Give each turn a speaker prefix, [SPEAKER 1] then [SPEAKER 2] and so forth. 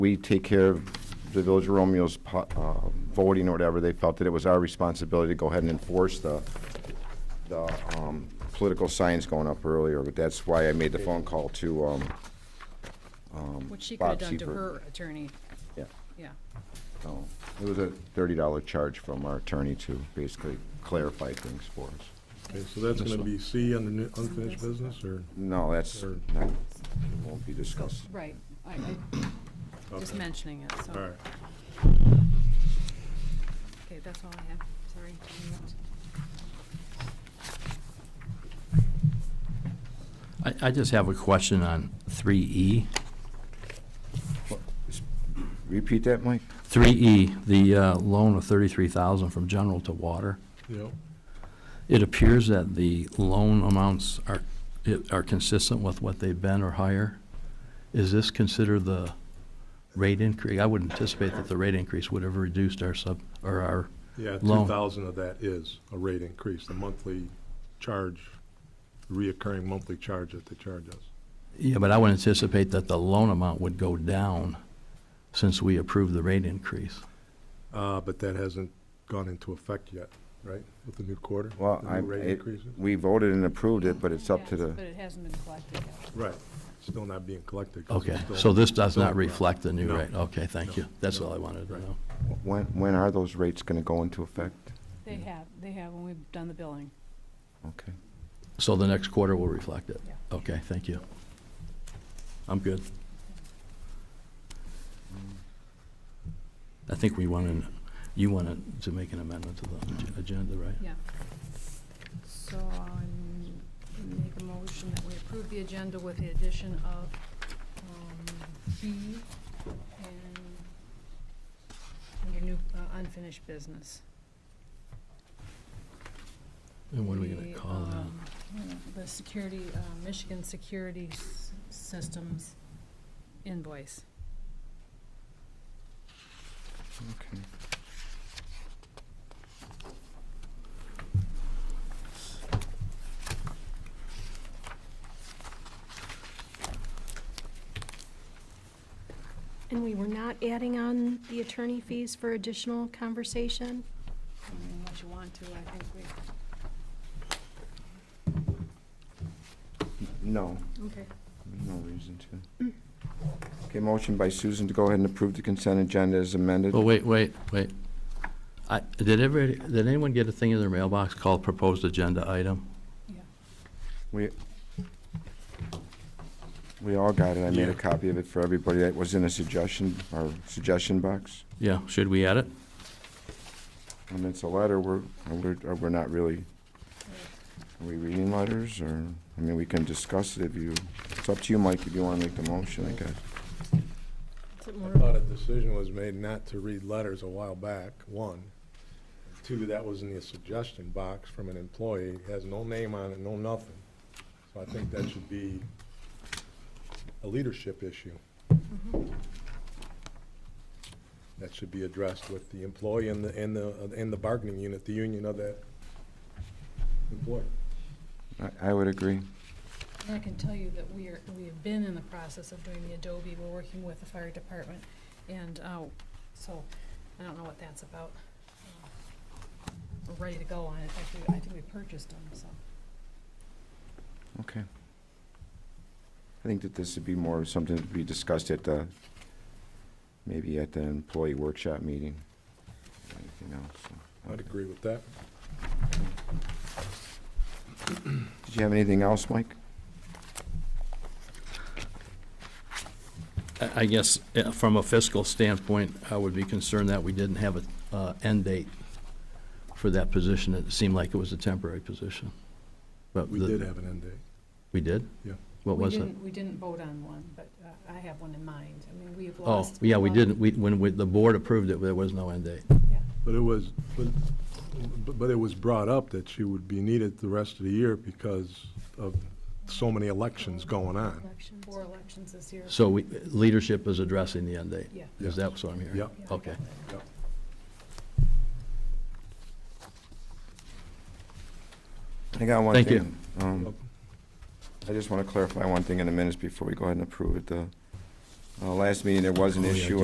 [SPEAKER 1] we take care of the Village of Romeo's po- uh, voting or whatever, they felt that it was our responsibility to go ahead and enforce the, the um, political signs going up earlier, but that's why I made the phone call to, um,
[SPEAKER 2] Which she could have
[SPEAKER 1] Bob
[SPEAKER 2] done to
[SPEAKER 1] Seifert.
[SPEAKER 2] her attorney,
[SPEAKER 1] yeah,
[SPEAKER 2] yeah.
[SPEAKER 1] so, it was a $30 charge from our attorney to basically clarify things for us.
[SPEAKER 3] Okay, so that's gonna be C on the new- unfinished business, or?
[SPEAKER 1] No, that's,
[SPEAKER 3] Or-
[SPEAKER 1] not- won't be discussed.
[SPEAKER 2] Right, I, I, just
[SPEAKER 3] Okay.
[SPEAKER 2] mentioning it, so.
[SPEAKER 3] All right.
[SPEAKER 2] Okay, that's all I have, sorry.
[SPEAKER 4] I, I just have a question on E. 3E.
[SPEAKER 1] Repeat that, Mike?
[SPEAKER 4] 3E, the uh, loan of 33,000 from general to water.
[SPEAKER 3] Yep,
[SPEAKER 4] It appears that the loan amounts are, it- are consistent with what they've been or higher. Is this considered the rate increase? I would anticipate that the rate increase would have reduced our sub, or our,
[SPEAKER 3] yeah,
[SPEAKER 4] Loan.
[SPEAKER 3] two thousand of that is a rate increase, the monthly charge, reoccurring monthly charge that they charge us.
[SPEAKER 4] yeah, but I would anticipate that the loan amount would go down since we approved the rate increase.
[SPEAKER 3] Uh, but that hasn't gone into effect yet, right, with the new quarter?
[SPEAKER 1] Well,
[SPEAKER 3] the new
[SPEAKER 1] I,
[SPEAKER 3] rate
[SPEAKER 1] it-
[SPEAKER 3] increases?
[SPEAKER 1] we voted and approved it, but it's up to
[SPEAKER 2] But
[SPEAKER 1] the,
[SPEAKER 2] it hasn't been collected yet.
[SPEAKER 3] Right, still not being collected. 'cause
[SPEAKER 4] Okay,
[SPEAKER 3] it's still-
[SPEAKER 4] so this does
[SPEAKER 3] still-
[SPEAKER 4] not reflect the new
[SPEAKER 3] No.
[SPEAKER 4] rate? Okay, thank you.
[SPEAKER 3] No.
[SPEAKER 4] That's
[SPEAKER 3] No.
[SPEAKER 4] all I wanted to
[SPEAKER 3] Right.
[SPEAKER 4] know.
[SPEAKER 1] when, when are those rates going to go into effect?
[SPEAKER 2] They have, they have, when we've done the billing.
[SPEAKER 1] Okay.
[SPEAKER 4] So the next quarter will reflect it?
[SPEAKER 2] Yeah.
[SPEAKER 4] Okay, thank you. I'm good. I think we wanted, you wanted to make an amendment to the ag- agenda, right?
[SPEAKER 2] Yeah. So I make a motion that we approve the agenda with the addition of um, B and under new uh, unfinished business.
[SPEAKER 4] And what are we going
[SPEAKER 2] The,
[SPEAKER 4] to call
[SPEAKER 2] um,
[SPEAKER 4] that?
[SPEAKER 2] The security, uh, Michigan Security S- Systems invoice.
[SPEAKER 1] Okay.
[SPEAKER 5] And we were not adding on the attorney fees for additional conversation?
[SPEAKER 2] I mean, Unless you want to, I think we,
[SPEAKER 1] No,
[SPEAKER 2] okay.
[SPEAKER 1] no reason to. Okay, motion by Susan to go ahead and approve the consent agenda as amended.
[SPEAKER 4] Well, Oh, wait, wait, wait. I, did everybody, did anyone get a thing in their mailbox called proposed agenda item?
[SPEAKER 2] Yeah.
[SPEAKER 1] We, we all got it. I made
[SPEAKER 3] Yeah.
[SPEAKER 1] a copy of it for everybody that was in a suggestion, or suggestion box.
[SPEAKER 4] Yeah, should we add it?
[SPEAKER 1] And it's a letter, we're, we're, we're not really, are we reading letters, or, I mean, we can discuss it if you, it's up to you, Mike, if you wanna make the motion, I guess.
[SPEAKER 2] Is it
[SPEAKER 3] I
[SPEAKER 2] more-
[SPEAKER 3] thought a decision was made not to read letters a while back, one. Two, that was in the suggestion box from an employee, has no name on it, no nothing. So I think that should be a leadership issue. That should be addressed with the employee and the, and the, and the bargaining unit, the union of that employee.
[SPEAKER 1] I, I would agree.
[SPEAKER 2] And I can tell you that we are, we have been in the process of doing the Adobe, we're working with the fire department, and, uh, so, I don't know what that's about. Uh, We're ready to go on it, I think, we- I think we purchased them, so.
[SPEAKER 1] Okay. I think that this would be more something to be discussed at the, maybe at the employee workshop meeting. Anything else? so.
[SPEAKER 3] I'd agree with that.
[SPEAKER 1] Did you have anything else, Mike?
[SPEAKER 4] I- I guess, uh, from a fiscal standpoint, I would be concerned that we didn't have a uh, end date for that position. It seemed like it was a temporary position. But
[SPEAKER 3] We
[SPEAKER 4] the-
[SPEAKER 3] did have an end date.
[SPEAKER 4] We did?
[SPEAKER 3] Yeah.
[SPEAKER 4] What
[SPEAKER 2] We
[SPEAKER 4] was it?
[SPEAKER 2] didn't- We didn't vote on one, but uh, I have one in mind, I mean, we have
[SPEAKER 4] Oh,
[SPEAKER 2] lost.
[SPEAKER 4] yeah, we
[SPEAKER 2] one.
[SPEAKER 4] didn't, we, when we- the board approved it, there was no end date.
[SPEAKER 2] Yeah.
[SPEAKER 3] But it was, but, but it was brought up that she would be needed the rest of the year because of so many elections going on.
[SPEAKER 5] Elections.
[SPEAKER 2] Four elections this year.
[SPEAKER 4] So we, leadership is addressing the end date?
[SPEAKER 2] Yeah.
[SPEAKER 4] Is that what I'm hearing?
[SPEAKER 3] Yeah.
[SPEAKER 2] Yeah.
[SPEAKER 4] Okay.
[SPEAKER 3] Yep.
[SPEAKER 1] I got one
[SPEAKER 4] Thank
[SPEAKER 1] thing. Um, I just want to clarify one thing in the minutes before we go ahead and approve it. The Uh, Last meeting, there was an issue